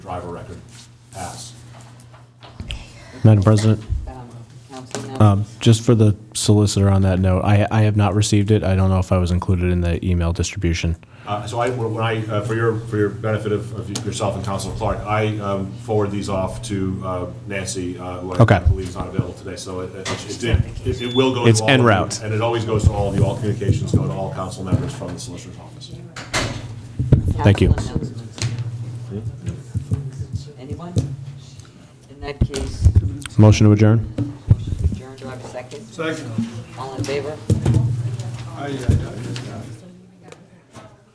driver record. Pass. Madam President, Um, Councilman- um, just for the solicitor on that note, I, I have not received it. I don't know if I was included in the email distribution. Uh, So I, when I, uh, for your, for your benefit of of yourself and Councilor Clark, I um, forward these off to uh, Nancy, uh, who I Okay. believe is not available today, so it, it- it did, it- it will go to all. It's en of you, route. And it always goes to all of you, all communications go to all council members from the solicitor's office. thank you. Council announcements. Anyone? In that case, Motion to adjourn? motion to adjourn, do I have a second? Second. All in favor? Aye, aye, aye.